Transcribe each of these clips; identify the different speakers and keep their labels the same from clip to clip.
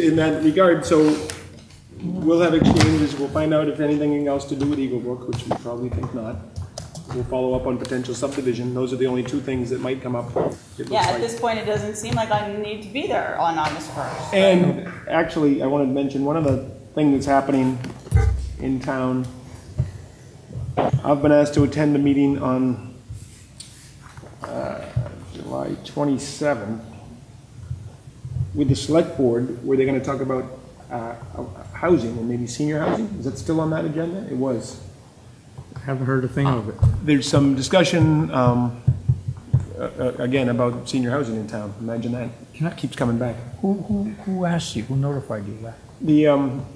Speaker 1: in that regard, so we'll have exchanges, we'll find out if anything else to do with Eagle Brook, which we probably think not. We'll follow up on potential subdivision, those are the only two things that might come up. it looks
Speaker 2: Yeah, at
Speaker 1: like.
Speaker 2: this point, it doesn't seem like I need to be there on August 1st.
Speaker 1: And actually, I wanted to mention, one other thing that's happening in town, I've been asked to attend a meeting on uh, July 27th with the select board, where they're going to talk about uh, housing and maybe senior housing. Is that still on that agenda? It was
Speaker 3: Haven't heard a thing of it.
Speaker 1: there's some discussion, um, uh, uh, again, about senior housing in town. Imagine that.
Speaker 3: Can I-
Speaker 1: Keeps coming back.
Speaker 3: Who, who, who asked you? Who notified you that?
Speaker 1: The, um,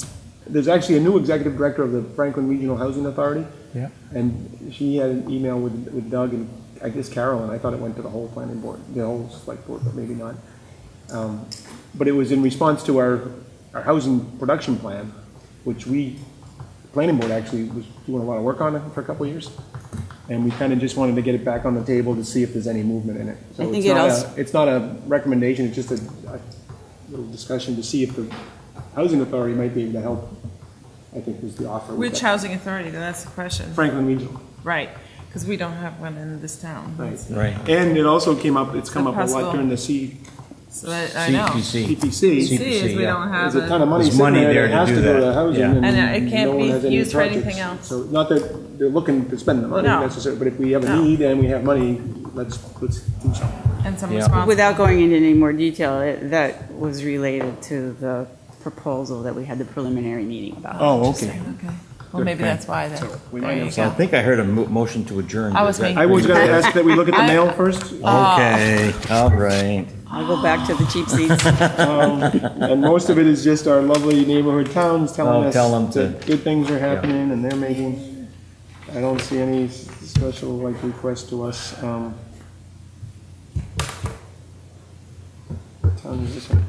Speaker 1: there's actually a new executive director of the Franklin Regional Housing Authority,
Speaker 3: Yeah.
Speaker 1: and she had an email with, with Doug and, I guess, Carol, and I thought it went to the whole planning board, the whole select board, but maybe not. Um, But it was in response to our, our housing production plan, which we, the planning board actually was doing a lot of work on it for a couple of years. And we kind of just wanted to get it back on the table to see if there's any movement in it. So
Speaker 2: I think
Speaker 1: it's
Speaker 2: it
Speaker 1: not
Speaker 2: als-
Speaker 1: a- It's not a recommendation, it's just a, a little discussion to see if the housing authority might be able to help, I think was the offer. we
Speaker 4: Which
Speaker 1: got.
Speaker 4: housing authority, then that's the question.
Speaker 1: Franklin Regional.
Speaker 4: Right, because we don't have one in this town.
Speaker 5: Right.
Speaker 1: And it also came up, it's come up a lot
Speaker 4: Impossible.
Speaker 1: during the C-
Speaker 4: So I, I know.
Speaker 5: CPC.
Speaker 4: See,
Speaker 1: CPC.
Speaker 4: is we
Speaker 5: yeah.
Speaker 4: don't
Speaker 1: There's
Speaker 4: have
Speaker 1: a ton
Speaker 4: a,
Speaker 1: of money
Speaker 5: There's
Speaker 1: sitting
Speaker 5: money
Speaker 1: there
Speaker 5: there
Speaker 1: that
Speaker 5: to
Speaker 1: has to
Speaker 5: do
Speaker 1: go
Speaker 5: that,
Speaker 1: to housing.
Speaker 5: yeah.
Speaker 4: And
Speaker 1: no
Speaker 4: it can't
Speaker 1: one
Speaker 4: be
Speaker 1: has any
Speaker 4: used for anything
Speaker 1: projects. So
Speaker 4: else.
Speaker 1: not that they're looking to spend the money
Speaker 4: No.
Speaker 1: necessarily, but if we have a
Speaker 4: No.
Speaker 1: need and we have money, let's, let's do something.
Speaker 4: and some
Speaker 5: Yeah.
Speaker 4: response.
Speaker 6: Without going into any more detail, it- that was related to the proposal that we had the preliminary meeting about.
Speaker 1: Oh, okay.
Speaker 4: Okay. Well, maybe that's why then.
Speaker 1: we
Speaker 4: There
Speaker 1: might
Speaker 4: you
Speaker 1: have
Speaker 5: So I
Speaker 4: go.
Speaker 5: think I heard a mo- motion to adjourn.
Speaker 4: I
Speaker 5: Is
Speaker 4: was Oh.
Speaker 5: that-
Speaker 4: making-
Speaker 1: I was gonna ask that we look at the mail first,
Speaker 5: Okay, all right.
Speaker 6: I'll go back to the cheap seats.
Speaker 1: and most of it is just our lovely neighborhood towns telling
Speaker 5: Oh,
Speaker 1: us
Speaker 5: tell 'em to-
Speaker 1: that good things are happening and they're making, I don't see any s- special like request to us. um, what Town is this one?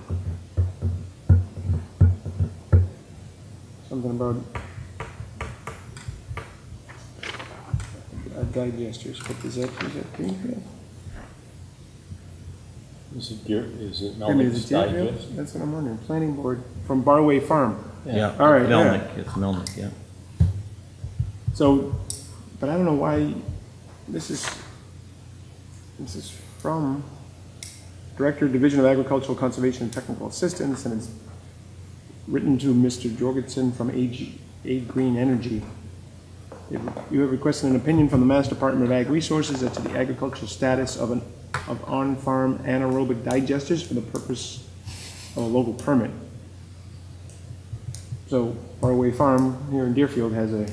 Speaker 1: Something about uh, digesters, but is that, is that Greenfield?
Speaker 7: Is it gear, is it
Speaker 1: I mean, is
Speaker 7: Melvin's
Speaker 1: it Deerfield?
Speaker 7: Digest?
Speaker 1: That's what I'm wondering, planning board from Barway Farm.
Speaker 5: Yeah.
Speaker 1: All right, yeah.
Speaker 5: Melnick, it's Melnick, yeah.
Speaker 1: So, but I don't know why, this is, this is from Director, Division of Agricultural Conservation and Technical Assistance, and it's written to Mr. Jorgensen from AG, A Green Energy. You have requested an opinion from the Mass Department of Ag Resources as to the agricultural status of an, of on-farm anaerobic digesters for the purpose of a local permit. So Faraway Farm here in Deerfield has a,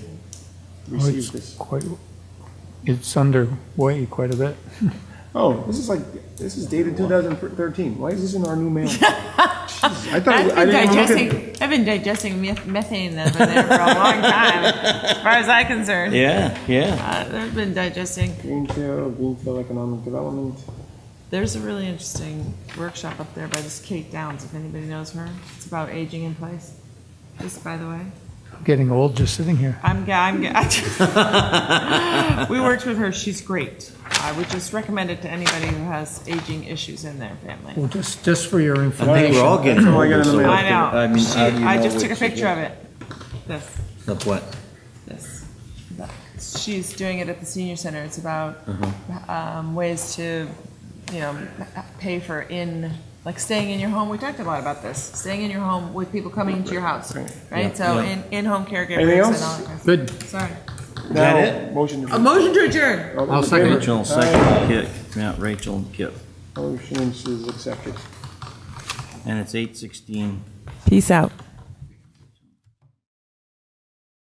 Speaker 3: Oh, it's
Speaker 1: received this.
Speaker 3: quite, it's underway quite a bit.
Speaker 1: Oh, this is like, this is dated 2013. Why is this in our new mail? Jeez, I thought,
Speaker 4: I've
Speaker 1: I
Speaker 4: been
Speaker 1: didn't even look at.
Speaker 4: digesting, I've been digesting meth- methane over there for a long time, as far as I'm concerned.
Speaker 5: Yeah, yeah.
Speaker 4: Uh, I've been digesting.
Speaker 1: Greenfield, Greenfield Economic Development.
Speaker 4: There's a really interesting workshop up there by this Kate Downs, if anybody knows her. It's about aging in place, just by the way.
Speaker 3: Getting old just sitting here.
Speaker 4: I'm, ga- I'm, ga- we worked with her, she's great. I would just recommend it to anybody who has aging issues in their family.
Speaker 3: Well, just, just for your
Speaker 5: I
Speaker 3: information.
Speaker 5: think we're all getting
Speaker 1: That's all I got
Speaker 5: older,
Speaker 1: in the
Speaker 5: so.
Speaker 1: mail.
Speaker 4: I
Speaker 5: mean,
Speaker 4: know, she,
Speaker 5: how do you
Speaker 4: I
Speaker 5: know
Speaker 4: just took a
Speaker 5: which-
Speaker 4: picture of it, this,
Speaker 5: Of what?
Speaker 4: this. that. She's doing it at the senior center, it's about,
Speaker 5: Uh-huh.
Speaker 4: um, ways to, you know, pay for in, like staying in your home, we talked a lot about this, staying in your home with people coming to your house, right? So
Speaker 5: Yeah.
Speaker 4: in, in-home caregivers
Speaker 1: Anything
Speaker 4: and all
Speaker 1: else?
Speaker 4: that kind of
Speaker 3: Good.
Speaker 4: stuff. Sorry.
Speaker 1: Now,
Speaker 5: it?
Speaker 1: Motion
Speaker 4: A
Speaker 1: to.
Speaker 4: motion to adjourn.
Speaker 1: all those
Speaker 3: I'll
Speaker 1: in favor?
Speaker 3: second it.
Speaker 5: Rachel,
Speaker 1: Aye.
Speaker 5: second kick. Yeah, Rachel and Kip.
Speaker 1: Motion is accepted.
Speaker 5: And it's eight sixteen.
Speaker 4: Peace out.